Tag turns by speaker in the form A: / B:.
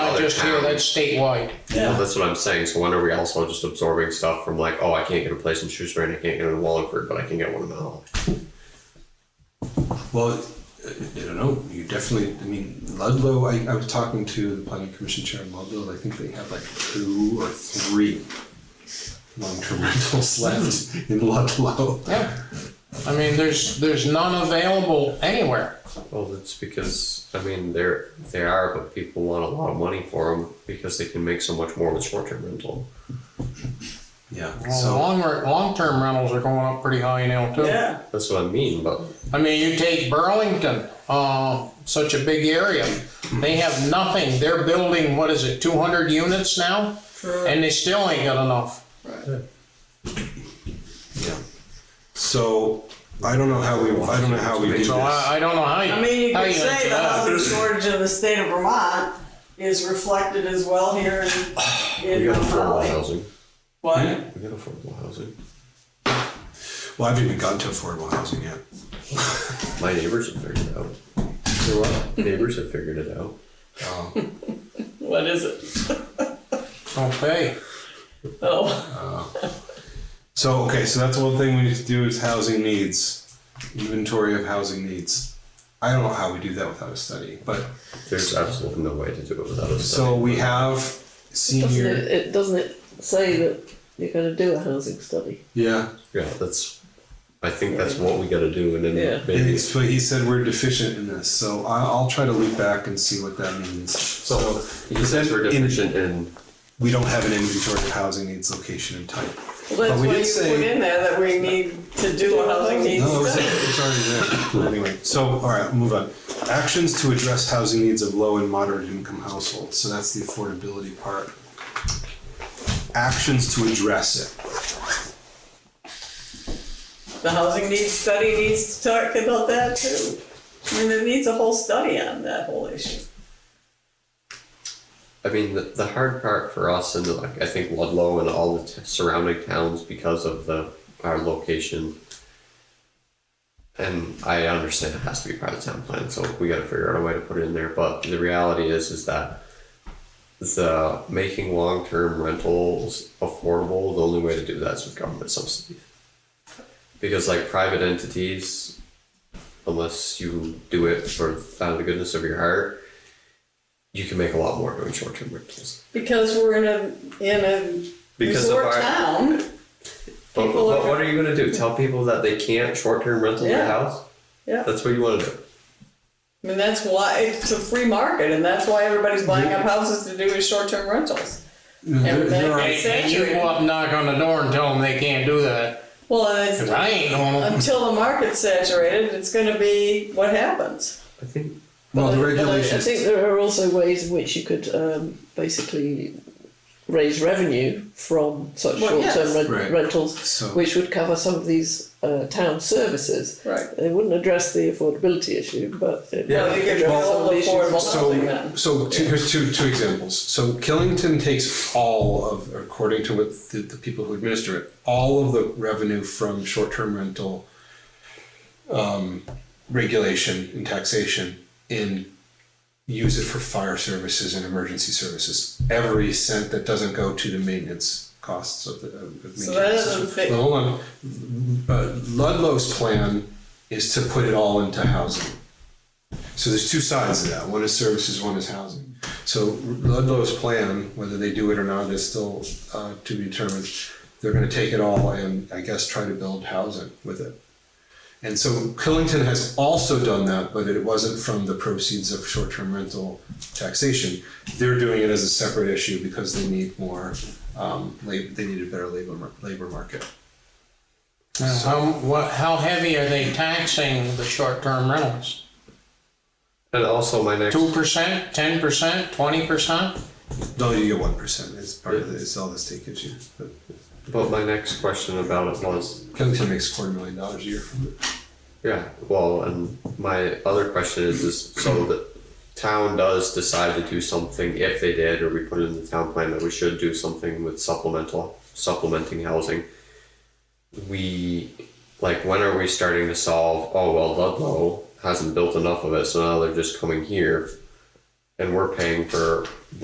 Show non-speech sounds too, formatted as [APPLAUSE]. A: just here, that's statewide.
B: Well,
C: Yeah.
B: that's what I'm saying. So when are we also just absorbing stuff from like, oh, I can't get a place in Shrewsbury and I can't get in Wallingford, but I can get one in Mount
C: Well, uh, I don't know. You definitely. I mean, Ludlow. I, I was talking to the planning commission chair in Ludlow. and I think they have like two or three long-term [LAUGHS] rentals left in Ludlow.
A: Yeah. I mean, there's, there's none available anywhere.
B: Well, that's because I mean they're they are, but people want a lot of money for them because they can make so much more with short-term rental.
C: Yeah.
A: Well,
C: So
A: long, long-term rentals are going up pretty high now too.
C: yeah.
B: That's what I mean. But
A: I mean, you take Burlington, uh, such a big area, they have nothing, they're building, what is it, two hundred units now? And they still ain't got enough.
C: Yeah. So I don't know how we. I don't know how we do this.
A: So I, I don't know how you.
D: I mean, you
A: how
D: could
A: gonna
D: say
A: do
D: the
A: that.
D: housing shortage of the state of Vermont is reflected as well here in,
B: we [SIGHS]
D: in
B: got affordable
D: Holly.
B: housing.
E: Hmm?
D: What?
B: We got affordable housing.
C: Well, I haven't even gotten to affordable housing yet.
B: My neighbors have figured it out.
C: So
B: [LAUGHS]
C: what?
B: neighbors have figured it out.
D: What is it?
A: Okay,
D: Oh,
C: So okay, so that's one thing we need to do is housing needs, inventory of housing needs. I don't know how we do that without a study, but
B: There's absolutely no way to do it without a study.
C: so we have
E: Doesn't
C: senior.
E: it, it doesn't it say that you're going to do a housing study?
C: Yeah,
B: yeah, that's. I think that's what we got to do, and then
E: Yeah.
C: and
B: maybe
C: it's, but he said we're deficient in this, so I, I'll try to loop back and see what that means. So
B: he says we're
C: in-
B: deficient in.
C: we don't have an inventory of housing needs, location, and type.
D: well,
C: But
D: that's
C: Oh, we
D: why
C: did
D: you
C: say-
D: put in there that we need to do a housing needs
C: No, it's,
D: study.
C: it's already there. Anyway, so, all right, move on. Actions to address housing needs of low and moderate income households, so that's the affordability part. Actions to address it.
D: The housing needs study needs to talk about that too. I mean, there needs a whole study on that whole issue.
B: I mean, the, the hard part for us, and like I think Ludlow and all the t- surrounding towns, because of the our location. And I understand it has to be part of the town plan, so we got to figure out a way to put it in there. But the reality is, is that the making long term rentals affordable. The only way to do that is with government subsidy, because like private entities, unless you do it for out of the goodness of your heart, you can make a lot more doing short term rentals.
D: Because we're in a, in a
B: Because of
D: resort
B: our-
D: town,
B: But,
D: People
B: but
D: are-
B: what are you gonna do? Tell people that they can't short term rental their
D: Yeah.
B: house?
D: yeah.
B: That's what you wanna do.
D: I mean, that's why, it's a free market and that's why everybody's buying up houses to do as short-term rentals.
C: There- there are-
D: Everything.
A: and and you go up, knock on the door and tell them they can't do that,
D: Well, and it's,
A: cause I ain't normal.
D: until the market's saturated, it's gonna be what happens.
B: I think
C: Well, the
E: But I- but I- I
C: regulations,
E: think there are also ways in which you could um, basically raise revenue from such
D: Well, yes.
E: short-term rent-
C: Right.
E: rentals,
C: So-
E: which would cover some of these uh, town services.
D: Right.
E: They wouldn't address the affordability issue, but it
B: Yeah.
D: Well, you could
E: Well,
D: build affordable housing
C: so,
D: then.
C: so two, here's two, two examples. So Killington takes all of, according to what the, the people who administer it, all of the revenue from short-term rental um, regulation and taxation and use it for fire services and emergency services. Every cent that doesn't go to the maintenance costs of the. Of of
D: So
C: maintaining
D: that
C: the
D: doesn't
C: system.
D: fit-
C: Well, Hold on. Uh, Ludlow's plan is to put it all into housing. So there's two sides to that. One is services, one is housing. So Ludlow's plan, whether they do it or not, is still uh, to be determined. They're going to take it all and I guess try to build housing with it. And so Killington has also done that, but it wasn't from the proceeds of short-term rental taxation. They're doing it as a separate issue because they need more, um, lab, they need a better labor, mar- labor market.
A: Now, How, what, how heavy are they taxing the short-term rentals?
B: and also my next
A: Two percent, ten percent, twenty percent?
C: No, you get one percent, it's part of the, it's all the state gives you. But
B: but my next question about it was
C: Killington makes quarter million dollars a year from it.
B: yeah, well and my other question is is so that town does decide to do something if they did or we put it in the town plan that we should do something with supplemental supplementing housing. we like when are we starting to solve oh well Ludlow hasn't built enough of it so now they're just coming here and we're paying for